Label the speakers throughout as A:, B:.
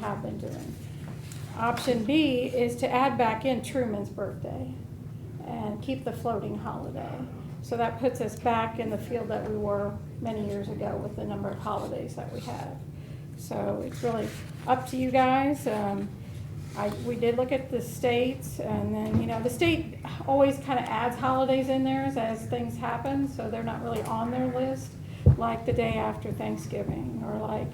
A: have been doing. Option B is to add back in Truman's birthday and keep the floating holiday. So that puts us back in the field that we were many years ago with the number of holidays that we have. So it's really up to you guys. Um, I, we did look at the states and then, you know, the state always kind of adds holidays in theirs as things happen, so they're not really on their list, like the day after Thanksgiving or like,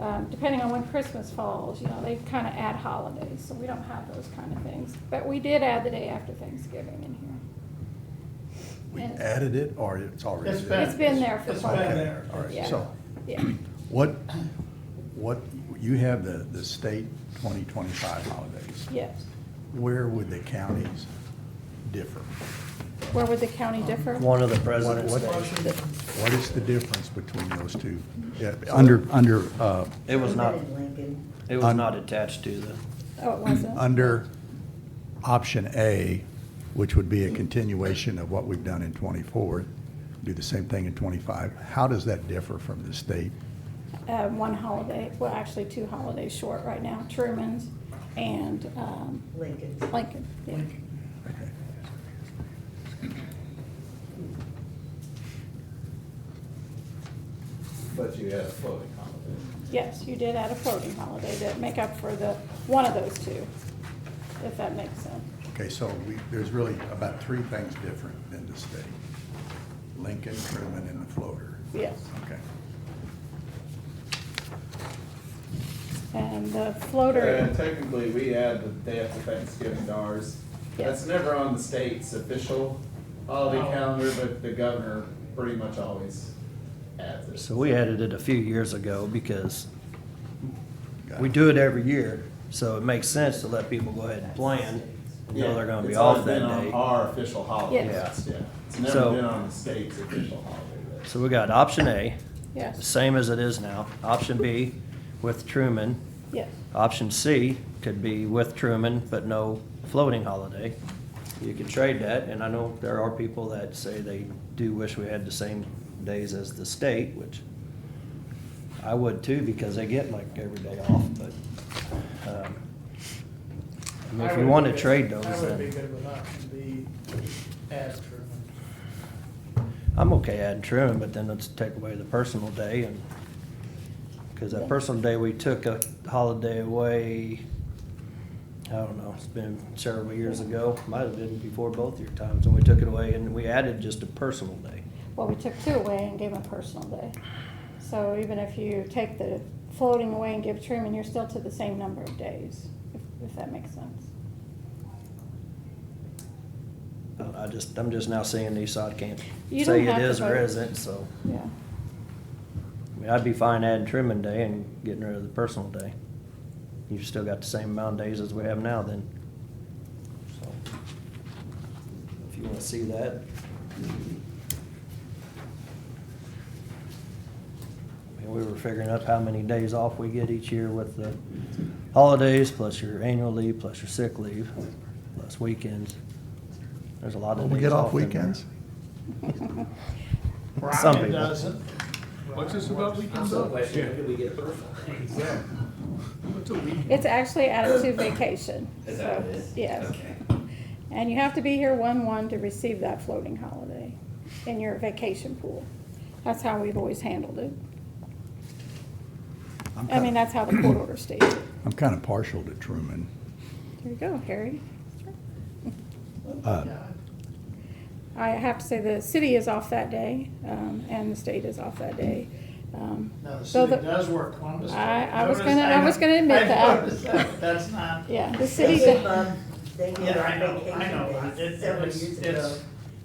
A: um, depending on when Christmas falls, you know, they kind of add holidays, so we don't have those kind of things. But we did add the day after Thanksgiving in here.
B: We
A: Yes.
B: added it, or it's already
C: It's
B: there?
A: It's been there for
C: It's
A: quite
C: been
A: a
C: there.
B: All right,
A: Yeah.
B: so
A: Yeah,
B: what, what, you have the, the state 2025 holidays.
A: yes.
B: Where would the counties differ?
A: Where would the county differ?
D: One of the president's
B: What-
D: days.
B: what- What is the difference between those two? Yeah, Under, under, uh,
D: It was not,
E: President Lincoln.
D: it was
B: Un-
D: not attached to the,
A: Oh, it wasn't?
B: under option A, which would be a continuation of what we've done in '24, do the same thing in '25, how does that differ from the state?
A: Uh, one holiday, well, actually two holidays short right now, Truman's and, um,
E: Lincoln's.
A: Lincoln. Yeah.
B: Okay.
F: But you had a floating holiday.
A: Yes, you did add a floating holiday to make up for the, one of those two, if that makes sense.
B: Okay, so we, there's really about three things different than the state. Lincoln, Truman, and the floater.
A: Yes.
B: Okay.
A: And the floater,
F: And technically, we add the day after Thanksgiving to ours. That's never on the state's official holiday
C: Oh.
F: calendar, but the governor pretty much always adds it.
D: so we added it a few years ago because
B: Got
D: we
B: it.
D: do it every year. So it makes sense to let people go ahead and plan, and know they're gonna be
F: It's always
D: off that
F: been on
D: day.
F: Our official holiday,
D: Yes.
F: yeah. It's never
D: So-
F: been on the state's official holiday. list.
D: So we got option A, the
A: yes,
D: same as it is now. Option B with Truman.
A: yes,
D: Option C could be with Truman, but no floating holiday. You could trade that, and I know there are people that say they do wish we had the same days as the state, which I would too, because they get like every day off, but, um, I mean, if
C: I
D: you
C: would
D: want
C: be
D: to
C: good-
D: trade those,
C: I would be
D: then
C: good with option B, as Truman.
D: I'm okay adding Truman, but then let's take away the personal day and, because that personal day, we took a holiday away, I don't know, it's been several years ago, might have been before both your times, and we took it away and we added just a personal day.
A: well, we took two away and gave them a personal day. So even if you take the floating away and give Truman, you're still to the same number of days, if, if that makes sense.
D: I I just, I'm just now seeing these, so I can't
A: You
D: say
A: don't have
D: it
A: to
D: is or
A: vote.
D: isn't, so.
A: Yeah,
D: I mean, I'd be fine adding trimming day and getting rid of the personal day. You've still got the same amount of days as we have now then. So, If you wanna see that. I mean, we were figuring up how many days off we get each year with the holidays, plus your annual leave, plus your sick leave, plus weekends. There's a lot
B: Don't
D: of days
B: we get off
D: in there.
B: weekends?
D: Some
C: Brian
D: people.
C: doesn't.
G: What's this about weekends off? we get personal days? What's a weekend?
A: it's actually added to vacation.
G: Is that what it
A: so,
G: is?
A: Yes.
G: Okay.
A: And you have to be here one-one to receive that floating holiday in your vacation pool. That's how we've always handled it.
B: I'm
A: I mean,
B: kind,
A: that's how the court order states it.
B: I'm kind of partial to Truman.
A: There you go, Harry.
B: Uh,
A: I have to say, the city is off that day, um, and the state is off that day. Um,
C: No, the
A: So the-
C: city does work Columbus Day.
A: I- I was
C: Notice-
A: gonna- I was gonna admit
C: I
A: that.
C: noticed that. That's not.
A: Yeah, the city,
E: They give,
A: do-
E: um, they give
C: Yeah, I know,
E: vacation
C: I know.
E: days
C: It's-
E: several
C: it's-
E: years ago,
C: it's-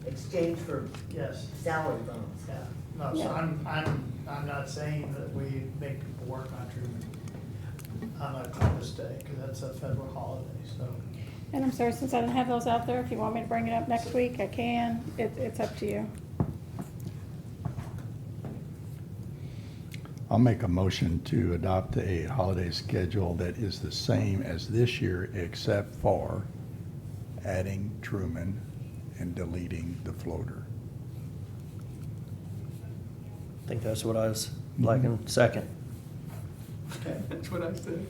E: exchange for
C: Yes,
E: salary bonus.
C: yeah. No, so
A: Yeah.
C: I'm, I'm, I'm not saying that we make people work on Truman on a Columbus Day, because that's a federal holiday, so.
A: and I'm sorry, since I didn't have those out there, if you want me to bring it up next week, I can. It, it's up to you.
B: I'll make a motion to adopt a holiday schedule that is the same as this year, except for adding Truman and deleting the floater. Mm-hmm.
D: I think that's what I was liking, second.
G: That's what I said.